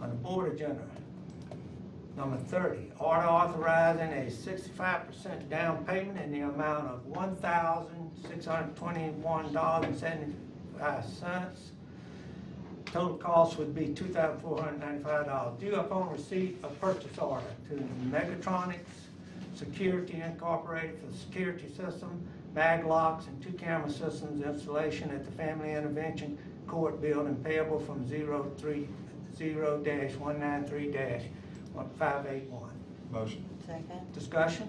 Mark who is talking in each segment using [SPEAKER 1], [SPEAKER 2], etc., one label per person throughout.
[SPEAKER 1] on the board agenda. Number thirty, order authorizing a sixty-five percent down payment in the amount of one thousand six hundred twenty-one dollars and seventy-five cents. Total cost would be two thousand four hundred ninety-five dollars due upon receipt of purchase order to Megatronics Security Incorporated for the security system, mag locks, and two camera systems installation at the Family Intervention Court Building payable from zero three, zero dash one nine three dash one five eight one.
[SPEAKER 2] Motion.
[SPEAKER 3] Second.
[SPEAKER 1] Discussion?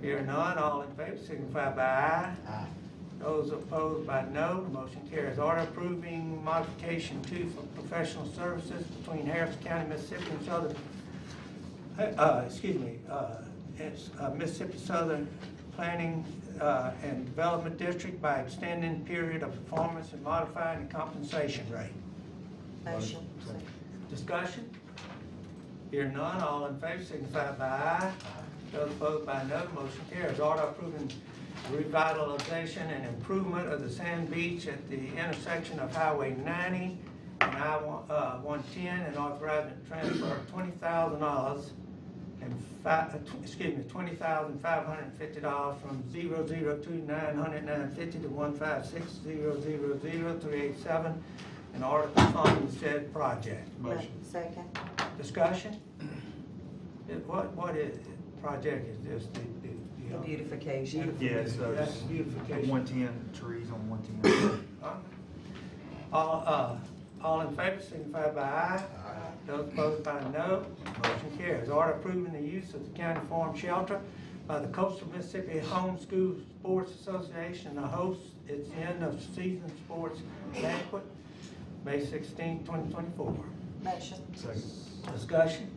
[SPEAKER 1] Hearing none, all in favor signify by aye.
[SPEAKER 2] Aye.
[SPEAKER 1] Those opposed by no, the motion carries. Order approving modification two for professional services between Harris County, Mississippi and Southern, uh, excuse me, uh, it's uh, Mississippi Southern Planning, uh, and Development District by extending period of performance and modifying the compensation rate.
[SPEAKER 3] Motion.
[SPEAKER 2] Second.
[SPEAKER 1] Discussion? Here none, all in favor signify by aye. Those opposed by no, motion carries. Order approving revitalization and improvement of the sand beach at the intersection of Highway ninety and I one, uh, one ten and authorizing transfer of twenty thousand dollars and five, uh, tw- excuse me, twenty thousand five hundred and fifty dollars from zero zero two nine hundred nine fifty to one five six zero zero zero three eight seven in order to fund the said project.
[SPEAKER 2] Motion.
[SPEAKER 3] Second.
[SPEAKER 1] Discussion? It- What, what is, project is this, the, the?
[SPEAKER 3] The
[SPEAKER 1] um,
[SPEAKER 3] beautification.
[SPEAKER 1] beautification?
[SPEAKER 2] Yeah, so
[SPEAKER 1] That's
[SPEAKER 2] it's
[SPEAKER 1] beautification.
[SPEAKER 2] one-ten, trees on one-ten.
[SPEAKER 1] Huh? All, uh, all in favor, signify by aye.
[SPEAKER 2] Aye.
[SPEAKER 1] Those opposed by no, motion carries. Order approving the use of the county farm shelter by the Coastal Mississippi Homeschool Sports Association to host its end of season sports banquet, May 16, twenty twenty-four.
[SPEAKER 3] Motion.
[SPEAKER 2] Second.
[SPEAKER 1] Discussion,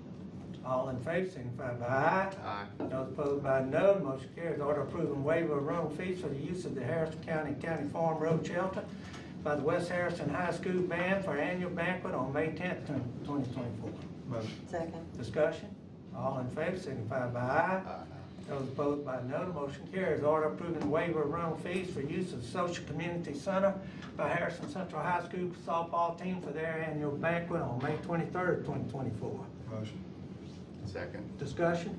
[SPEAKER 1] all in favor, signify by aye.
[SPEAKER 2] Aye.
[SPEAKER 1] Those opposed by no, motion carries. Order approving waiver of room fees for the use of the Harrison County County Farm Road Shelter by the West Harrison High School Band for annual banquet on May tenth, twenty twenty-four.
[SPEAKER 2] Motion.
[SPEAKER 3] Second.
[SPEAKER 1] Discussion, all in favor, signify by aye. Those opposed by no, the motion carries. Order approving waiver of rental fees for use of Social Community Center by Harrison Central High School softball team for their annual banquet on May twenty-third, twenty twenty-four.
[SPEAKER 2] Motion.
[SPEAKER 4] Second.
[SPEAKER 1] Discussion,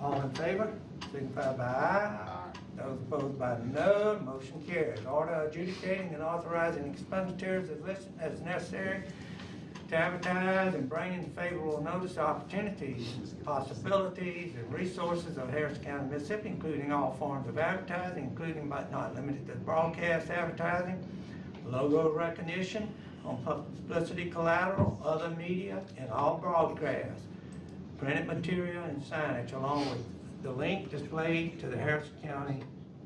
[SPEAKER 1] all in favor, signify by aye. Those opposed by no, the motion carries. Order adjudicating and authorizing expenditures as listed as necessary to advertise and bring into favorable notice the opportunities, possibilities, and resources of Harris County, Mississippi, including all forms of advertising, including but not limited to broadcast advertising, logo recognition on publicity collateral, other media, and all broadcasts, printed material and signage, along with the link displayed to the Harris County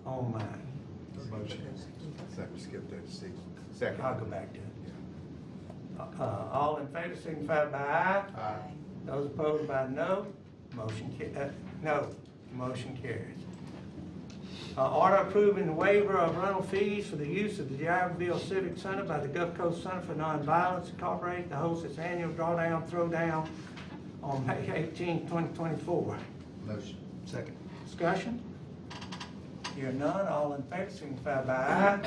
[SPEAKER 1] online.
[SPEAKER 2] Motion.
[SPEAKER 4] Second, skip that to six.
[SPEAKER 1] I'll go
[SPEAKER 4] Second.
[SPEAKER 1] back to it. Uh, all in favor, signify by aye.
[SPEAKER 4] Aye.
[SPEAKER 1] Those opposed by no, motion ca- uh, no, motion carries. Uh, order approving the waiver of rental fees for the use of the Jacksonville Civic Center by the Gulf Coast Center for Nonviolence Incorporated to host its annual drawdown, throwdown on May 18, 2024.
[SPEAKER 2] Motion. Second.
[SPEAKER 1] Discussion? Hear none, all in favor, signify by aye.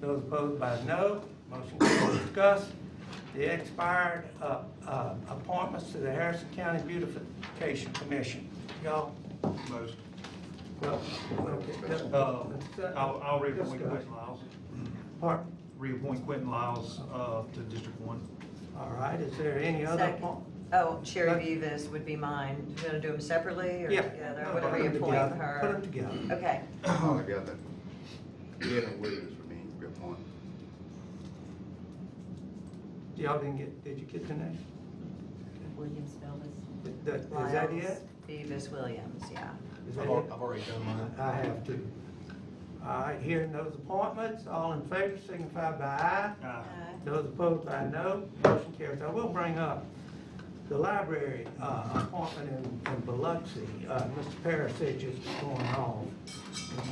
[SPEAKER 1] Those opposed by no, motion carries. Discuss the expired uh, uh, appointments to the Harrison County Beautification Commission. Y'all,
[SPEAKER 2] Motion.
[SPEAKER 1] well, okay,
[SPEAKER 2] Uh,
[SPEAKER 1] uh,
[SPEAKER 2] I'll, I'll reappoint
[SPEAKER 1] Discuss.
[SPEAKER 2] Quentin Lyles,
[SPEAKER 1] pardon,
[SPEAKER 2] reappoint Quentin Lyles, uh, to District One.
[SPEAKER 1] all right, is there any other
[SPEAKER 3] Second.
[SPEAKER 1] appointment?
[SPEAKER 3] Oh, Sherry Vivas would be mine. You gonna do them separately or together? I'm gonna reappoint
[SPEAKER 1] Put them
[SPEAKER 3] her.
[SPEAKER 1] together.
[SPEAKER 3] Okay.
[SPEAKER 4] All together. Kevin Williams for me, reappoint.
[SPEAKER 1] Y'all didn't get, did you get the name?
[SPEAKER 5] Williams Villas.
[SPEAKER 1] Th- th- Is that it?
[SPEAKER 3] Lyles Vivas Williams, yeah.
[SPEAKER 1] Is that
[SPEAKER 6] I've
[SPEAKER 1] it?
[SPEAKER 6] al- I've already done mine.
[SPEAKER 1] I have to. All right, hearing those appointments, all in favor signify by aye.
[SPEAKER 2] Aye.
[SPEAKER 1] Those opposed by no, motion carries. I will bring up the library uh, appointment in in Biloxi. Uh, Mr. Parasich is going on.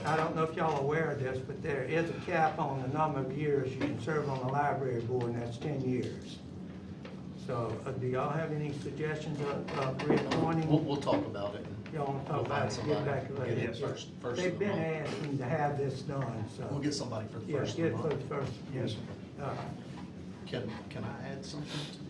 [SPEAKER 1] I don't know if y'all are aware of this, but there is a cap on the number of years you can serve on the library board, and that's ten years. So uh, do y'all have any suggestions of of
[SPEAKER 6] We'll,
[SPEAKER 1] reappointing?
[SPEAKER 6] we'll talk about it. and
[SPEAKER 1] Y'all want to talk
[SPEAKER 6] We'll
[SPEAKER 1] about
[SPEAKER 6] find
[SPEAKER 1] it,
[SPEAKER 6] somebody.
[SPEAKER 1] get back to
[SPEAKER 6] Get
[SPEAKER 1] it.
[SPEAKER 6] it first, first
[SPEAKER 1] They've
[SPEAKER 6] of the
[SPEAKER 1] been
[SPEAKER 6] month.
[SPEAKER 1] asking to have this done, so.
[SPEAKER 6] We'll get somebody for the
[SPEAKER 1] Yeah,
[SPEAKER 6] first
[SPEAKER 1] get
[SPEAKER 6] of
[SPEAKER 1] it
[SPEAKER 6] the
[SPEAKER 1] for the
[SPEAKER 6] month.
[SPEAKER 1] first.
[SPEAKER 2] Yes, sir.
[SPEAKER 1] All right.
[SPEAKER 6] Can, can I add something to